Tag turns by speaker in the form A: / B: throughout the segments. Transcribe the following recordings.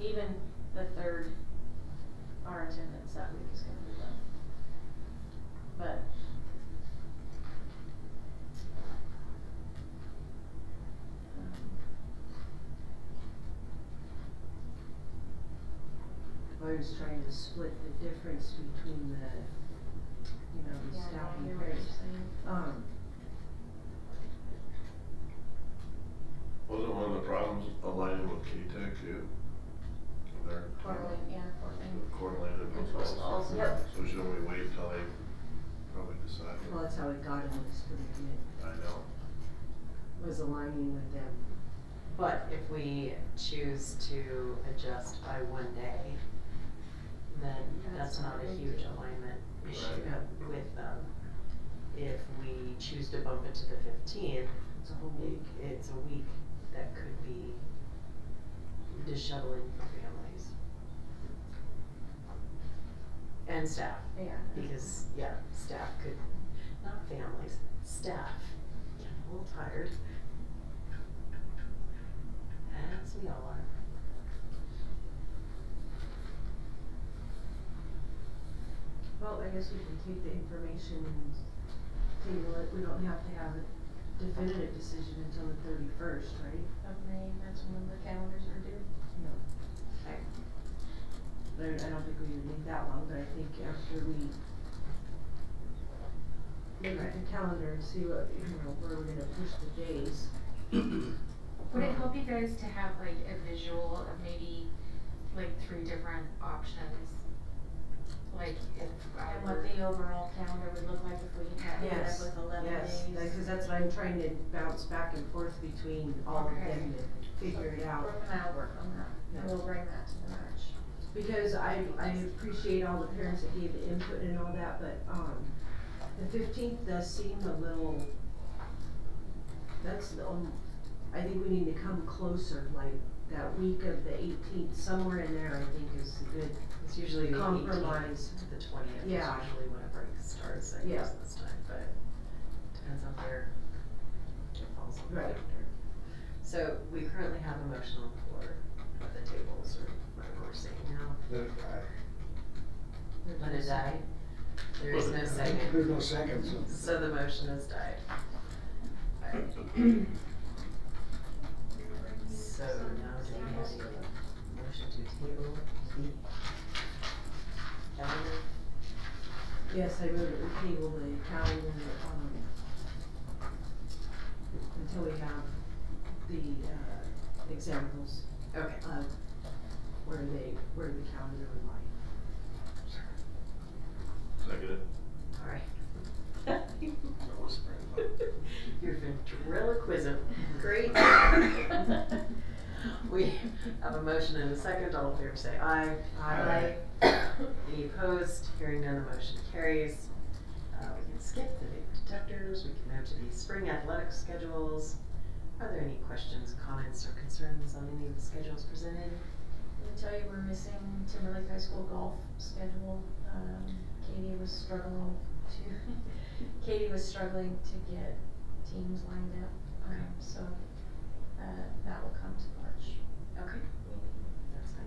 A: Even the third, our attendance that week is gonna be low. But. um,
B: I was trying to split the difference between the, you know, the
A: Yeah,
B: staff
A: I
B: and
A: hear
B: parents.
A: what you're saying.
B: Um,
C: Wasn't one of the problems aligning with K-Tech too? Their-
A: Coeur d'Alene, yeah, Coeur d'Alene.
C: Coeur d'Alene and
A: And
C: Post
A: Post
C: Falls.
A: Falls, yep.
C: So shouldn't we wait till they probably decide?
B: well, that's how it got in this predicament,
C: I know.
B: was aligning with them.
D: But if we choose to adjust by one day, then
A: That's
D: that's
A: not
D: not
A: a
D: a
A: big
D: huge
A: deal.
D: alignment issue
B: Right.
D: with them. If we choose to bump it to the fifteenth,
B: It's a whole week.
D: it's a week that could be disheveling for families. And staff,
A: Yeah.
D: because, yeah, staff could, not families, staff, get a little tired. As we all are.
B: Well, I guess we can take the information and table it, we don't have to have a definitive decision until the thirty-first, right?
A: Of May, that's when the calendars are due.
B: No.
D: Right.
B: There, I don't think we would need that long, but I think after we look at the calendar and see what, you know, where we're gonna push the days.
E: Would it help you guys to have like a visual of maybe like three different options? Like if I
A: And what
E: were,
A: the overall calendar would look like if we had it up
B: Yes,
A: with eleven days.
B: Yes, because that's what I'm trying to bounce back and forth between all of them to figure it out.
A: We're gonna work on that, and
B: Yeah.
A: we'll bring that to the March.
B: Because I, I appreciate all the parents that gave the input and all that, but, um, the fifteenth does seem a little, that's the, only- I think we need to come closer, like, that week of the eighteenth, somewhere in there, I think is a good
D: It's usually the eighteenth
B: compromise.
D: to the twentieth is
B: Yeah.
D: usually when a break starts, I
B: Yeah.
D: guess this time, but depends on where it falls on the
B: Right.
D: calendar. So we currently have a motion on the floor, but the tables are, whatever we're saying now, let it die. There is no
F: There's
D: second,
F: no second, so.
D: so the motion has died. Alright, so now do we have a motion to table the calendar?
B: Yes, I moved it to table the calendar, um, until we have the, uh, examples
D: Okay,
B: of where they, where the calendar would lie.
C: Second it.
D: alright.
C: I'm whispering, but-
D: Your ventriloquism. Great. We have a motion and a second. All in favor say aye.
C: Aye.
D: Any opposed? Hearing none, the motion carries. Uh, we can skip the vape detectors. We can move to the spring athletic schedules. Are there any questions, comments, or concerns on any of the schedules presented?
A: Let me tell you, we're missing Timberlake High School golf schedule. Um, Katie was struggling to, Katie was struggling to get teams lined up. Um, so, uh, that will come to March.
D: Okay. That's fine.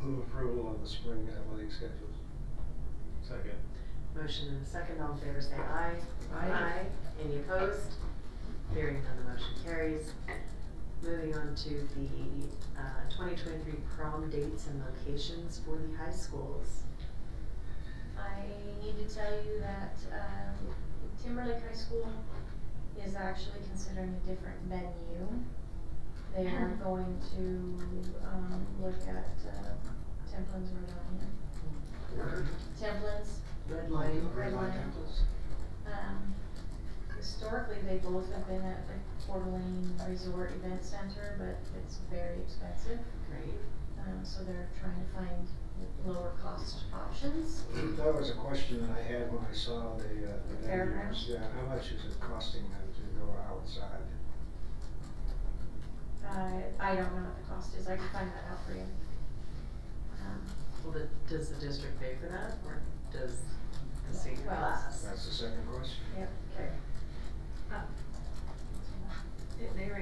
F: Move approval on the spring athletic schedules.
C: Second.
D: Motion and a second. All in favor say aye.
B: Aye.
D: Any opposed? Hearing none, the motion carries. Moving on to the uh, 2023 prom dates and locations for the high schools.
A: I need to tell you that, um, Timberlake High School is actually considering a different venue. They are going to, um, look at, uh, Templins or Lion. Templins
B: Red line,
A: Red line. Um, historically, they both have been at the Coeur d'Alene Resort Event Center, but it's very expensive.
D: Great.
A: Um, so they're trying to find lower cost options.
F: That was a question that I had when I saw the, uh, the
A: Fairgrounds?
F: venues. Yeah, how much is it costing them to go outside?
A: Uh, I don't know what the cost is, I can find that out for you. Um,
D: Well, the, does the district pay for that or does the senior
A: Well,
F: uh,
D: class?
F: That's the second question.
A: Yep.
D: Okay.
E: they were